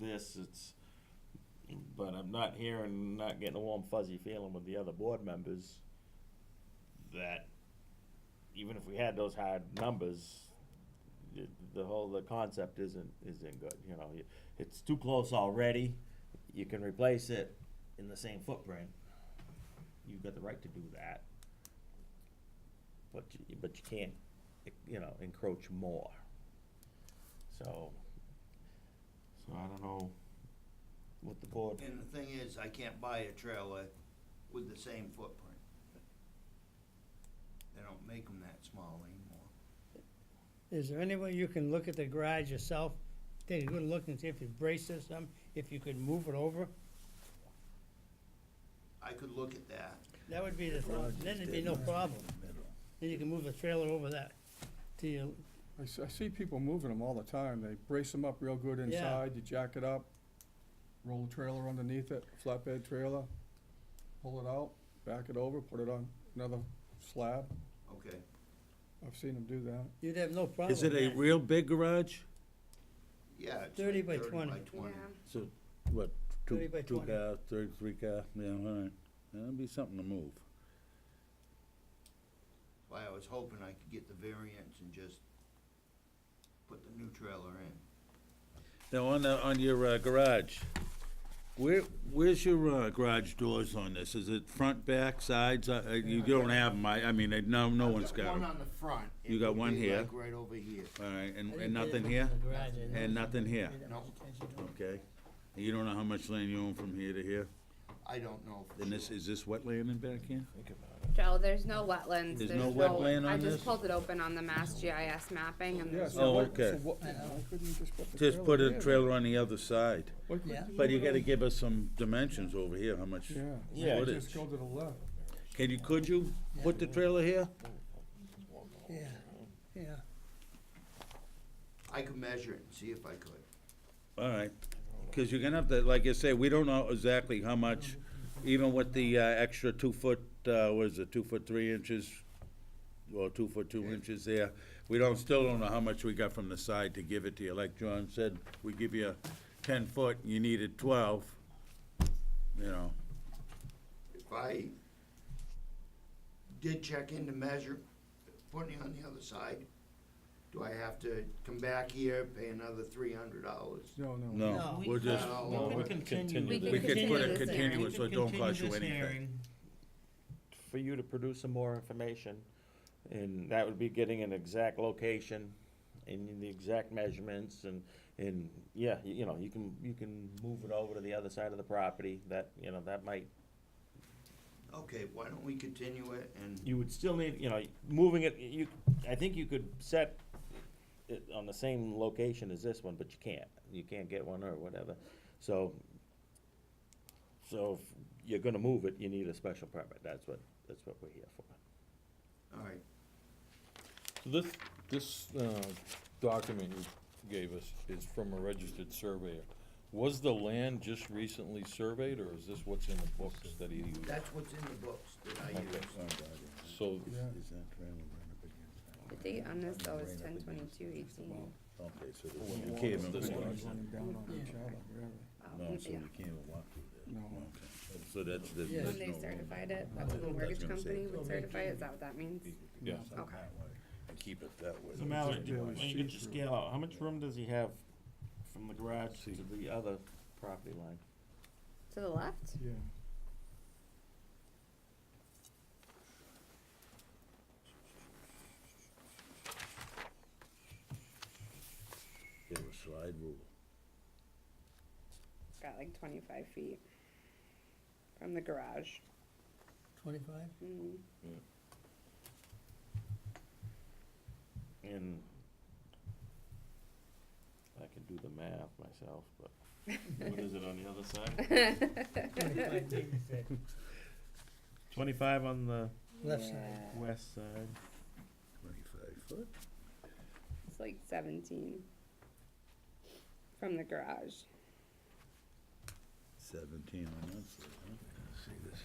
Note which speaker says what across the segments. Speaker 1: this, it's, but I'm not hearing, not getting a warm fuzzy feeling with the other board members that even if we had those hard numbers, the, the whole, the concept isn't, isn't good, you know, you- it's too close already, you can replace it in the same footprint. You've got the right to do that. But, you- but you can't, you know, encroach more. So, so I don't know what the board,
Speaker 2: And the thing is, I can't buy a trailer with the same footprint. They don't make them that small anymore.
Speaker 3: Is there any way you can look at the garage yourself, take a good look and see if you brace this some, if you could move it over?
Speaker 2: I could look at that.
Speaker 3: That would be the, then it'd be no problem. Then you can move the trailer over that to your,
Speaker 4: I see, I see people moving them all the time. They brace them up real good inside, you jack it up, roll the trailer underneath it, flatbed trailer, pull it out, back it over, put it on another slab.
Speaker 2: Okay,
Speaker 4: I've seen them do that.
Speaker 3: you'd have no problem.
Speaker 5: Is it a
Speaker 3: with that.
Speaker 5: real big garage?
Speaker 2: yeah. it's
Speaker 3: 30
Speaker 2: like
Speaker 3: by 20.
Speaker 2: Thirty by twenty.
Speaker 5: So, what,
Speaker 3: Thirty
Speaker 5: two,
Speaker 3: by
Speaker 5: two
Speaker 3: 20.
Speaker 5: car, three, three car, yeah, all right, that'd be something to move.
Speaker 2: Why, I was hoping I could get the variance and just put the new trailer in.
Speaker 5: Now, on the, on your uh, garage, where, where's your uh, garage doors on this? Is it front, back, sides? I- I- You don't have them, I, I mean, I- no, no
Speaker 2: I've
Speaker 5: one's got
Speaker 2: One
Speaker 5: them.
Speaker 2: on the front. It
Speaker 5: You got
Speaker 2: would
Speaker 5: one
Speaker 2: be
Speaker 5: here.
Speaker 2: like Right over here.
Speaker 5: All right, and,
Speaker 3: I
Speaker 5: and
Speaker 3: didn't pay
Speaker 5: nothing
Speaker 3: attention
Speaker 5: here?
Speaker 3: to the garage, I didn't
Speaker 5: And nothing here,
Speaker 2: No,
Speaker 5: okay? And You don't know how much land you own from here to here?
Speaker 2: I don't know for
Speaker 5: Then this,
Speaker 2: sure.
Speaker 5: is this wetland in back here?
Speaker 6: Joe, there's no wetlands.
Speaker 5: There's no wetland on
Speaker 6: I
Speaker 5: this?
Speaker 6: just pulled it open on the Mass GIS mapping and
Speaker 4: Yeah,
Speaker 6: there's
Speaker 4: so
Speaker 5: Oh,
Speaker 4: why,
Speaker 5: okay.
Speaker 4: so what, why couldn't you just put the trailer
Speaker 5: Just put a
Speaker 4: there?
Speaker 5: trailer on the other side.
Speaker 4: Why couldn't-
Speaker 3: Yeah.
Speaker 5: But you gotta give us some dimensions over here, how much
Speaker 4: Yeah.
Speaker 1: Yeah,
Speaker 4: Maybe
Speaker 5: footage.
Speaker 4: Just go to the left.
Speaker 5: Can you, could you put the trailer here?
Speaker 3: Yeah, yeah.
Speaker 2: I could measure it and see if I could.
Speaker 5: All right, because you're gonna have to, like I say, we don't know exactly how much, even with the uh, extra two foot, uh, what is it, two foot three inches? Well, two foot two inches there, we don't, still don't know how much we got from the side to give it to you, like John said, we give you a ten foot, and you needed twelve, you know,
Speaker 2: If I did check in to measure, putting it on the other side, do I have to come back here, pay another three hundred dollars?
Speaker 4: No, no.
Speaker 3: No,
Speaker 5: no,
Speaker 3: we-
Speaker 5: we'll just,
Speaker 2: No.
Speaker 1: we
Speaker 2: we
Speaker 1: can
Speaker 2: can
Speaker 1: continue.
Speaker 6: We
Speaker 1: the-
Speaker 6: can
Speaker 5: we could put
Speaker 6: continue
Speaker 5: it
Speaker 6: this hearing.
Speaker 5: continuous, so it don't cost you anything.
Speaker 1: for you to produce some more information, and that would be getting an exact location and the exact measurements and, and, yeah, you you know, you can, you can move it over to the other side of the property, that, you know, that might,
Speaker 2: Okay, why don't we continue it and,
Speaker 1: you would still need, you know, moving it, you, I think you could set it on the same location as this one, but you can't, you can't get one or whatever, so, so if you're gonna move it, you need a special permit, that's what, that's what we're here for.
Speaker 2: all right,
Speaker 7: So This, this uh, document you gave us is from a registered surveyor. Was the land just recently surveyed, or is this what's in the books that he used?
Speaker 2: that's what's in the books that I use.
Speaker 7: So,
Speaker 5: Is that trailer right up against that?
Speaker 6: the date on this though is ten twenty-two eighteen.
Speaker 5: Okay, so this- you can't even
Speaker 7: This
Speaker 5: walk,
Speaker 7: one.
Speaker 4: Running down on each other, really.
Speaker 6: Um,
Speaker 5: no, so you can't even walk through there.
Speaker 4: No.
Speaker 5: Okay. So that's, that's.
Speaker 6: When they certified it, that's when the mortgage company would certify it, is that what that means?
Speaker 7: yeah,
Speaker 6: Okay.
Speaker 5: And keep it that way.
Speaker 1: So Mallory,
Speaker 4: Just
Speaker 1: do-
Speaker 4: do a
Speaker 1: when you get your
Speaker 4: see-through.
Speaker 1: scale out, how much room does he have from the garage to the other property line?
Speaker 6: To the left?
Speaker 4: Yeah.
Speaker 5: Give a slide rule.
Speaker 6: Got like twenty-five feet from the garage.
Speaker 3: Twenty-five?
Speaker 6: Mm.
Speaker 1: And I can do the math myself, but what is it on the other side? Twenty-five on the
Speaker 3: Left side.
Speaker 1: west side.
Speaker 5: Twenty-five foot?
Speaker 6: It's like seventeen from the garage.
Speaker 5: Seventeen on that side, huh? See this?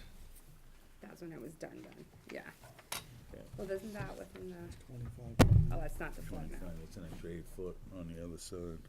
Speaker 6: That's when it was done, done, yeah.
Speaker 1: Okay.
Speaker 6: Well, isn't that within the,
Speaker 4: Twenty-five.
Speaker 6: oh, that's not the flood map.
Speaker 5: Twenty-five, it's an extra eight foot on the other side.